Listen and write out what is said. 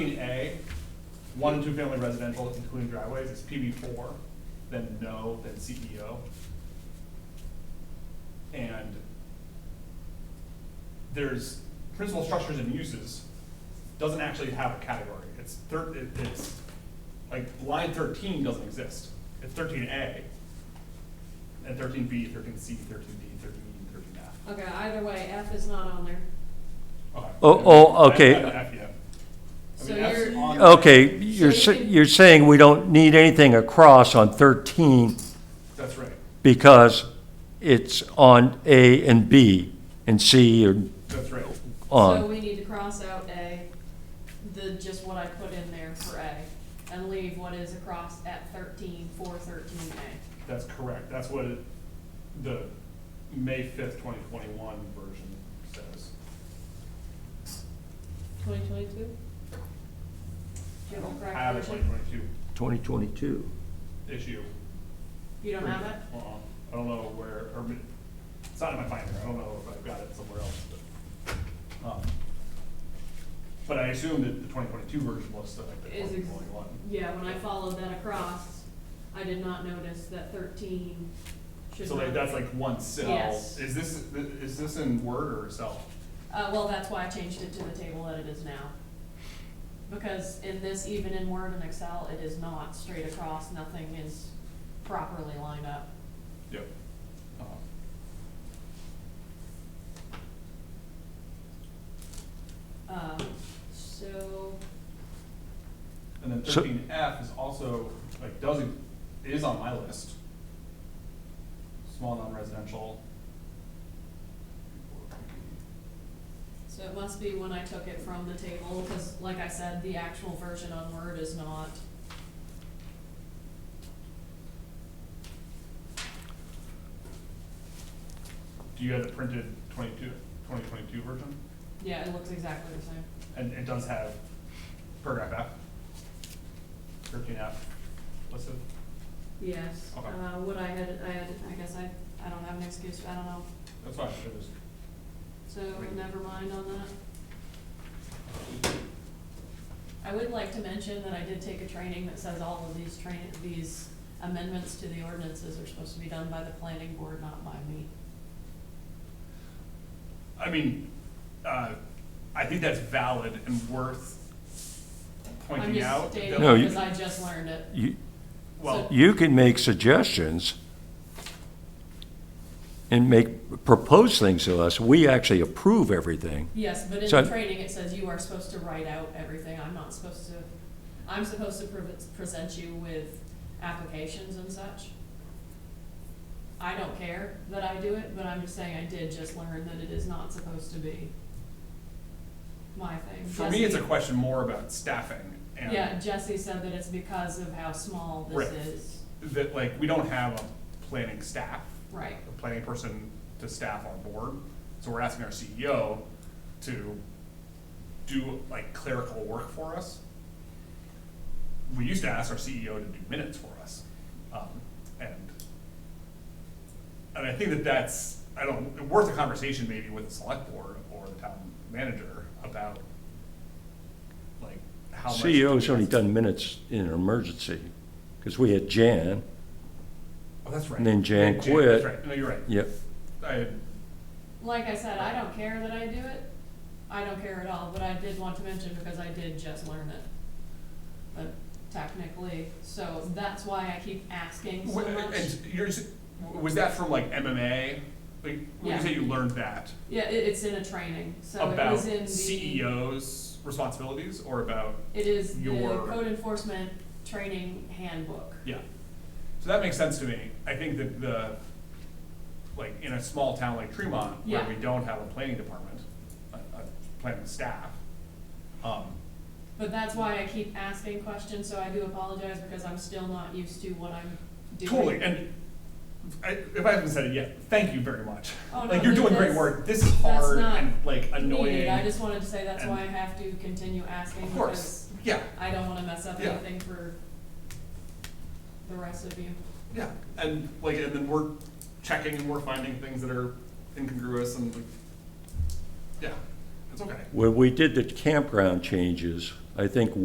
twenty A, one and two family residential, including driveways, it's PB four, then no, then CEO. And there's principal structures and uses, doesn't actually have a category, it's thir- it- it's, like, line thirteen doesn't exist, it's thirteen A. And thirteen B, thirteen C, thirteen D, thirteen E, thirteen F. Okay, either way, F is not on there. Okay. Oh, oh, I- okay. I- I- yeah. I So mean, F's you're, on- Okay, you're, sa- you're saying we don't need anything across on 13 That's right, because it's on A and B and C or that's right. so on. we need to cross out A, the, just what I put in there for A, and leave what is across at thirteen, for thirteen A. That's correct. That's what it- the May fifth, twenty twenty-one version says. Twenty twenty-two? Do you have a correct I have a twenty version? twenty-two 2022. issue. You don't have it? Uh-uh. I don't know where, or, mi- it's not in my binder. I don't know if I've got it somewhere else, but. um, But I assume that the twenty twenty-two version looks like the Is twenty ex- twenty-one. yeah, when I followed that across, I did not notice that thirteen should So like, not that's be. like one cell. Yes. Is this, is this in Word or Excel? Uh, well, that's why I changed it to the table that it is now. Because in this, even in Word and Excel, it is not straight across, nothing is properly lined up. Yep. Uh-huh. Um, so, And then So- thirteen F is also, like, doesn't, is on my list. Small non-residential. so it must be when I took it from the table, cause like I said, the actual version on Word is not. Do you have the printed 22 2022 version? Yeah, it looks exactly the same. And it does have paragraph F, thirteen F listed. Yes, Okay. uh, what I had, I had, I guess I, I don't have an excuse, I don't know, That's fine, it is. so never mind on that. I would like to mention that I did take a training that says all of these train, these amendments to the ordinances are supposed to be done by the planning board, not by me. I mean, uh, I think that's valid and worth I'm pointing just out. stating No, you- because I just learned it. You, Well, you can make suggestions and make, propose things to us. We actually approve everything. Yes, but in So- the training, it says you are supposed to write out everything, I'm not supposed to, I'm supposed to pre- present you with applications and such. I don't care that I do it, but I'm just saying I did just learn that it is not supposed to be my thing. For me, it's a Jesse- question more about staffing and. Yeah, Jesse said that it's because of how small this Right. is, that like, we don't have a planning staff, right, a planning person to staff our board. So we're asking our CEO to do like clerical work for us. We used to ask our CEO to do minutes for us. Um, and, and I think that that's, I don't, worth a conversation maybe with the select board or the town manager about like how much. do we CEO's E only ask- done minutes in an emergency, because we had Jan. Oh, that's right. And then Jan That's quit. right. No, you're right. Yep. I had like I said, I don't care that I do it, I don't care at all, but I did want to mention because I did just learn it. But technically, so that's why I keep asking so Wha- much. And yours, was that from like MMA? Like, when Yeah. you say you learned that, Yeah, it, it's in a training, so it about E was in the. CEO's responsibilities or about, It is the your- code enforcement training handbook. yeah. So that makes sense to me. I think that the, like, in a small town like Tremont, where Yeah. we don't have a planning department, a, a planning staff, um, But that's why I keep asking questions, so I do apologize because I'm still not used to what I'm doing. totally, and I, if I haven't said it yet, thank you very much. Oh, no, Like, you're that- doing great that's- work. This is that's hard not and like annoying. Needed, I just wanted to say that's and- why I have to continue asking Of because course, yeah. I don't wanna mess up Yeah. anything for the rest of you. Yeah, and like, and then we're checking and we're finding things that are incongruous and like, yeah, it's okay. When we did the campground changes, I think